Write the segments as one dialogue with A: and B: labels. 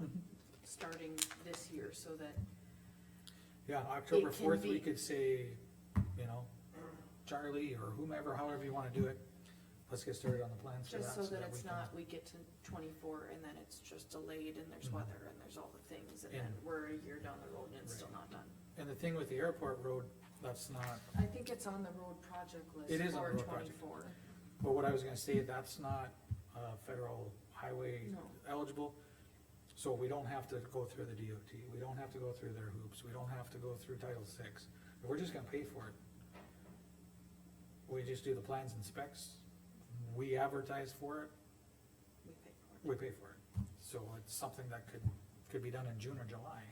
A: Mm-hmm. starting this year, so that,
B: Yeah, October
A: It can
B: fourth, we
A: be-
B: could say, you know, Charlie or whomever, however you wanna do it, let's get started on the plans for that.
A: just so that
B: we
A: it's
B: can-
A: not, we get to twenty-four and then it's just delayed and there's
B: Mhm.
A: weather and there's all the things, and then
B: And-
A: we're a year down the road and it's still
B: Right.
A: not done.
B: And the thing with the airport road, that's not,
A: I think it's on the road project list
B: It
A: for
B: is on the road project.
A: twenty-four.
B: but what I was gonna say, that's not, uh, federal highway
A: No.
B: eligible. So we don't have to go through the DOT, we don't have to go through their hoops, we don't have to go through Title Six, we're just gonna pay for it. We just do the plans and specs, we advertise for it,
A: We pay for it.
B: we pay for it. So it's something that could, could be done in June or July,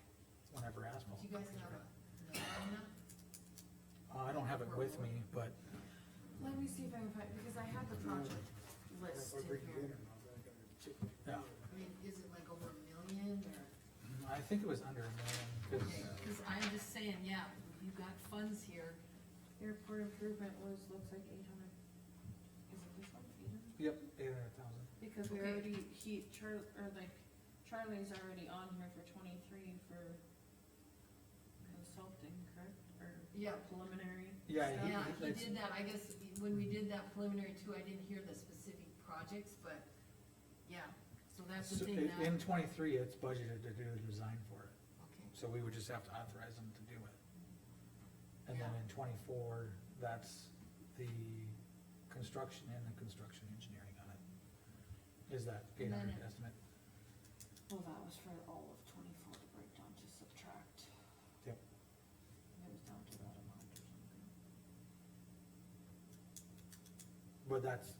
B: whenever asphalt.
C: Do you guys
B: comes
C: have
B: around.
C: a, number on that?
B: Uh, I don't have it with me, but
A: Let me see if I can find, because I have the project list in here.
B: Yeah.
C: I mean, is it like over a million or?
B: I think it was under a million,
C: Okay, Cause I'm just saying, yeah, you've got funds here.
A: Airport improvement was, looks like eight hundred. Is it this one, eight hundred?
B: yep, eight hundred thousand.
A: Because we
C: Okay.
A: already, he, Char, or like, Charlie's already on here for twenty-three for consulting, correct? Or
C: Yeah.
A: preliminary?
B: Yeah, he-
C: Yeah, he
B: it's-
C: did that, I guess, when we did that preliminary too, I didn't hear the specific projects, but, yeah, so that's
B: So
C: the thing
B: i-
C: now.
B: In twenty-three, it's budgeted to do the design for it,
C: Okay,
B: so we would just have to authorize them to do it. And then
C: Yeah.
B: in twenty-four, that's the construction and the construction engineering on it. Is that eight
C: And then
B: hundred
C: it-
B: estimate?
A: Well, that was for all of twenty-four to break down to subtract.
B: Yep.
A: It was down to that amount or something.
B: But that's,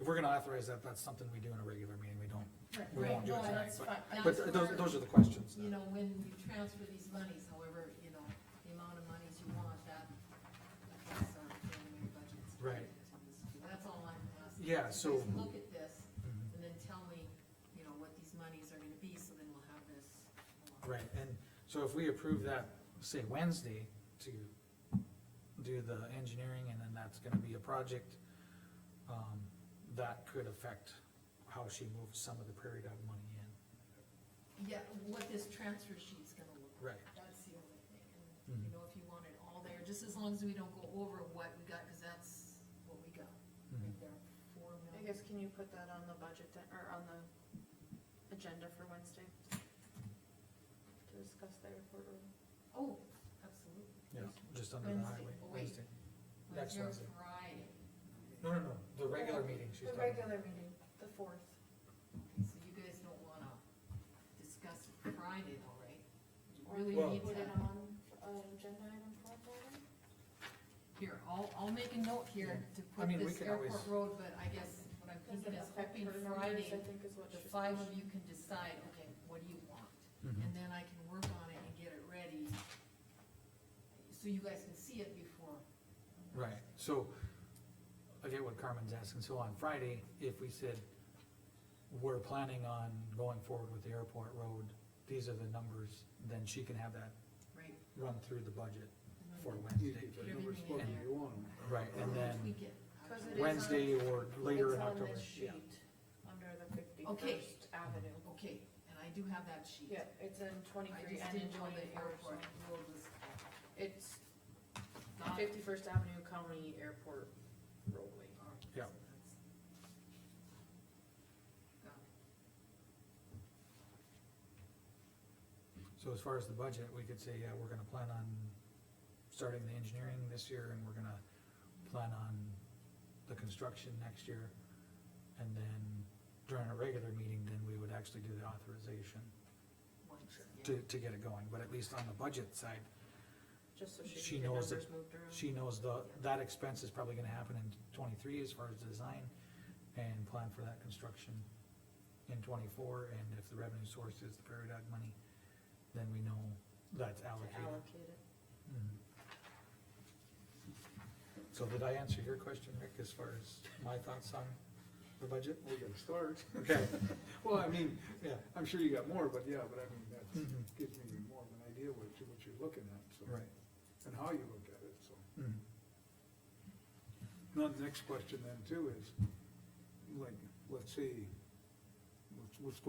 B: if we're gonna authorize that, that's something we do in a regular meeting, we don't,
A: Right,
B: we won't do it
C: no,
B: tonight,
C: that's
B: but,
C: fine.
B: but
C: That's
B: those,
C: where-
B: those are the questions. that-
C: you know, when you transfer these monies, however, you know, the amount of monies you want, that, that's our preliminary budgets.
B: Right.
C: That's all I'm asking.
B: Yeah,
C: Just
B: so-
C: Look at this,
B: Mhm.
C: and then tell me, you know, what these monies are gonna be, so then we'll have this. along.
B: Right, and so if we approve that, say Wednesday, to do the engineering, and then that's gonna be a project, um, that could affect how she moves some of the Prairie Dog money in.
C: Yeah, what this transfer sheet's gonna look like.
B: Right.
C: That's the only thing, and, you
B: Mhm.
C: know, if you want it all there, just as long as we don't go over what we got, cause that's what we got.
B: Mm-hmm.
C: Right there, four
A: I
C: million.
A: guess, can you put that on the budget, then- or on the agenda for Wednesday? To discuss the airport road?
C: Oh, absolutely.
B: Yeah, just under the highway,
C: Wednesday, oh, wait.
B: Wednesday. Next
C: Your
B: Wednesday.
C: Friday.
B: No, no, no, the regular meeting she's
A: The
B: talking about.
A: regular meeting, the fourth.
C: Okay, So you guys don't wanna discuss Friday though, right? You
A: Or
C: Really
B: Well-
C: need
A: Put it
C: to,
A: on, uh, agenda item four, maybe?
C: here, I'll, I'll make a note here to
B: I
C: put
B: mean, we
C: this
B: can
C: airport
B: always-
C: road, but I guess what I'm
A: Does
C: thinking
A: it
C: is
A: affect
C: hoping
A: her numbers,
C: Friday,
A: I think is what
C: the
A: she's
C: five of
A: pushing.
C: you can decide, okay, what do you want?
B: Mhm.
C: And then I can work on it and get it ready, so you guys can see it before.
B: Right, so, I get what Carmen's asking, so on Friday, if we said, we're planning on going forward with the airport road, these are the numbers, then she can have that
C: Right.
B: run through the budget
C: And then
B: for
C: we
D: You
B: Wednesday.
D: get the numbers what you want.
B: Right, and then
C: Tweak it.
A: Cause it is on-
B: Wednesday or later
A: It's
B: in
A: on
B: October,
A: this
B: yeah.
A: sheet, Under the
C: Okay.
A: fifty-first avenue.
C: Okay, and I do have that sheet.
A: Yeah, it's in
C: I
A: twenty-three
C: just
A: and in
C: didn't know the
A: twenty-four, so
C: airport road was
A: it's
C: not
A: fifty-first avenue county airport roadway.
B: Yeah. So as far as the budget, we could say, yeah, we're gonna plan on starting the engineering this year and we're gonna plan on the construction next year. And then during a regular meeting, then we would actually do the authorization to, to get it going, but at least on the budget side,
A: Just so
B: She
A: she can get
B: knows
A: numbers moved around.
B: she knows the, that expense is probably gonna happen in twenty-three as far as design and plan for that construction in twenty-four, and if the revenue source is the Prairie Dog money, then we know that's
A: To
B: allocated.
A: allocate it.
B: Mhm. So did I answer your question, Rick, as far as my thoughts on the budget?
D: We can start.
B: Okay,
D: Well, I mean,
B: yeah,
D: I'm sure you got more, but yeah, but I mean, that
B: Mhm.
D: gives me even more of an idea what you, what you're looking at, so.
B: right.
D: And how you look at it, so.
B: Mhm.
D: Now, the next question then too is, like, let's see, let's, let's go